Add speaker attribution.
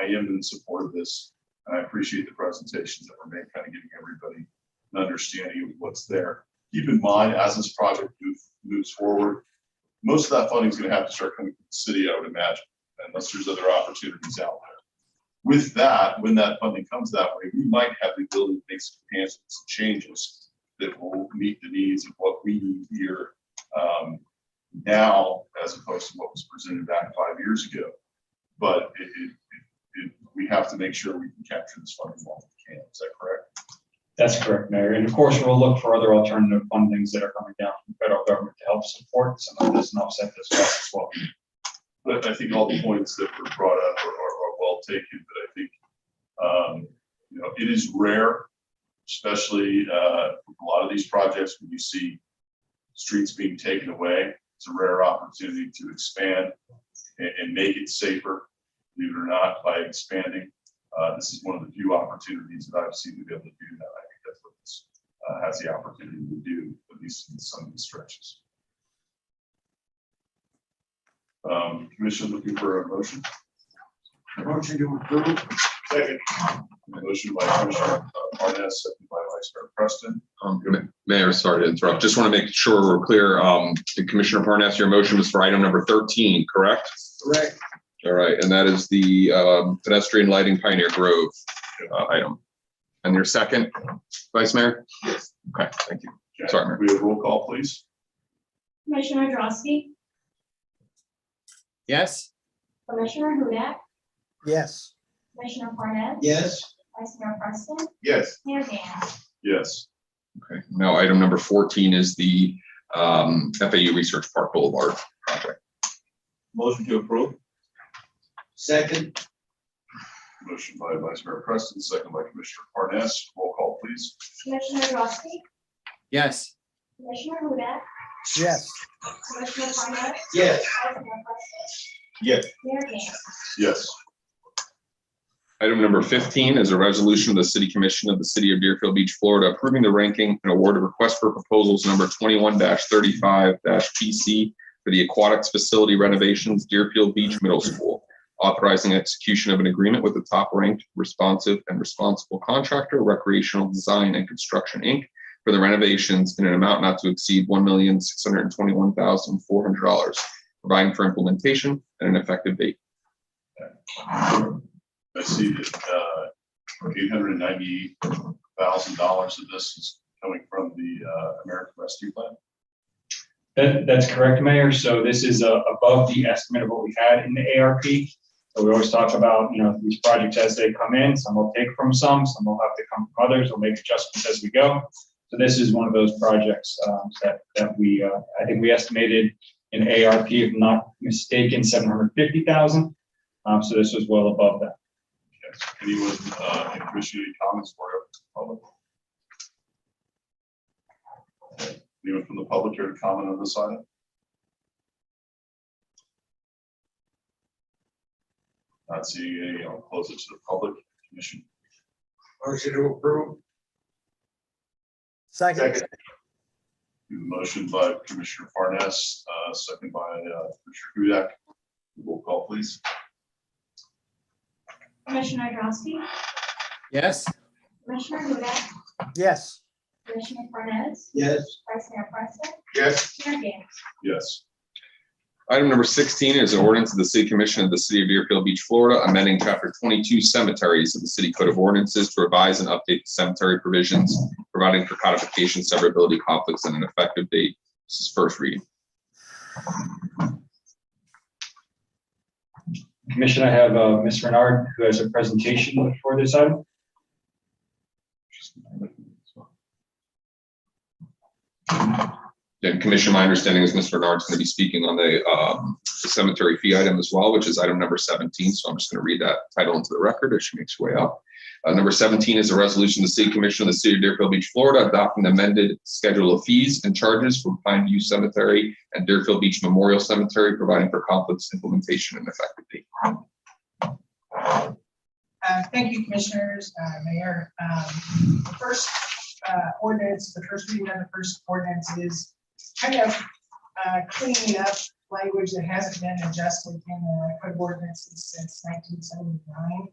Speaker 1: I am in support of this. And I appreciate the presentations that were made, kind of giving everybody an understanding of what's there. Keep in mind, as this project move- moves forward, most of that funding is going to have to start coming from the city, I would imagine, unless there's other opportunities out there. With that, when that funding comes that way, we might have the ability to make some enhancements, some changes that will meet the needs of what we need here um, now as opposed to what was presented back five years ago. But it, it, it- it, we have to make sure we can capture this funding while we can. Is that correct?
Speaker 2: That's correct, Mayor. And of course, we'll look for other alternative fundings that are coming down from the federal government to help support some of this and offset this cost as well.
Speaker 1: But I think all the points that were brought up are, are, are well taken, but I think, um, you know, it is rare, especially, uh, with a lot of these projects, when you see streets being taken away, it's a rare opportunity to expand and, and make it safer, believe it or not, by expanding. Uh, this is one of the few opportunities that I've seen to be able to do that. I think that's what this, uh, has the opportunity to do, at least in some of the stretches. Um, commission looking for a motion?
Speaker 3: Motion to approve.
Speaker 1: Second. Motion by Commissioner uh, Parnas, second by Vice Mayor Preston.
Speaker 4: Um, Ma- Mayor, sorry to interrupt. Just want to make sure we're clear. Um, Commissioner Parnas, your motion was for item number thirteen, correct?
Speaker 3: Correct.
Speaker 4: All right, and that is the um, pedestrian lighting Pioneer Grove uh, item. And your second, Vice Mayor? Yes. Okay, thank you.
Speaker 1: Jack,
Speaker 4: Sorry, Mayor.
Speaker 1: We have roll call, please.
Speaker 5: Commissioner Drosky,
Speaker 6: yes,
Speaker 5: Commissioner Hudak,
Speaker 3: Yes.
Speaker 5: Commissioner Parnas,
Speaker 3: Yes.
Speaker 5: Vice Mayor Preston,
Speaker 1: Yes.
Speaker 5: Mayor Dan.
Speaker 1: Yes.
Speaker 4: Okay, now item number fourteen is the um, FAU Research Park Boulevard project.
Speaker 1: Motion to approve.
Speaker 3: Second.
Speaker 1: Motion by Vice Mayor Preston, second by Commissioner Parnas. Roll call, please.
Speaker 5: Commissioner Drosky,
Speaker 6: yes,
Speaker 5: Commissioner Hudak,
Speaker 3: Yes.
Speaker 5: Commissioner Parnas,
Speaker 3: Yes.
Speaker 5: Vice Mayor Preston.
Speaker 1: Yes.
Speaker 5: Mayor Dan.
Speaker 1: Yes.
Speaker 4: Item number fifteen is a resolution of the City Commission of the City of Deerfield Beach, Florida, approving the ranking and award of request for proposals number twenty-one thirty-five PC for the aquatics facility renovations Deerfield Beach Middle School, authorizing execution of an agreement with the top-ranked responsive and responsible contractor, Recreational Design and Construction, Inc., for the renovations in an amount not to exceed one million six hundred and twenty-one thousand four hundred dollars, providing for implementation and an effective date.
Speaker 1: I see that uh, eight hundred and ninety thousand dollars of this is coming from the uh, American Rescue Plan.
Speaker 2: That, that's correct, Mayor. So this is uh, above the estimate of what we had in the ARP. So we always talk about, you know, these projects as they come in, some will take from some, some will have to come from others, we'll make adjustments as we go. So this is one of those projects um, that, that we, uh, I think we estimated in ARP, if not mistaken, seven hundred fifty thousand. Um, So this was well above that.
Speaker 1: Yes. Anyone, uh, in commission, any comments for public? Anyone from the public here to comment on this item? Not seeing any, I'll close it to the public commission.
Speaker 3: Motion to approve. Second.
Speaker 1: The Motion by Commissioner Parnas, uh, second by uh, Commissioner Hudak. Roll call, please.
Speaker 5: Commissioner Drosky,
Speaker 6: yes.
Speaker 5: Commissioner Hudak,
Speaker 3: Yes.
Speaker 5: Commissioner Parnas,
Speaker 3: Yes.
Speaker 5: Vice Mayor Preston,
Speaker 1: Yes.
Speaker 5: Mayor Dan.
Speaker 1: Yes.
Speaker 4: Item number sixteen is an ordinance of the City Commission of the City of Deerfield Beach, Florida, amending Chapter twenty-two cemeteries of the City Code of Ordinances to revise and update cemetery provisions, providing for codification, severability, conflicts, and an effective date. This is first reading.
Speaker 2: Commission, I have uh, Ms. Renard, who has a presentation for this item.
Speaker 4: And Commission, my understanding is Mr. Bernard's going to be speaking on the um, cemetery fee item as well, which is item number 17. So I'm just going to read that title into the record as she makes her way up. Uh, Number 17 is a resolution of the City Commission of the City of Deerfield Beach, Florida, adopting the amended schedule of fees and charges for Pine View Cemetery and Deerfield Beach Memorial Cemetery, providing for conflicts, implementation, and effective date.
Speaker 7: Uh, Thank you, Commissioners, uh, Mayor. Um, The first uh, ordinance, the first reading of the first ordinance is kind of uh, cleaning up language that hasn't been adjusted in the code of ordinances since nineteen seventy-nine.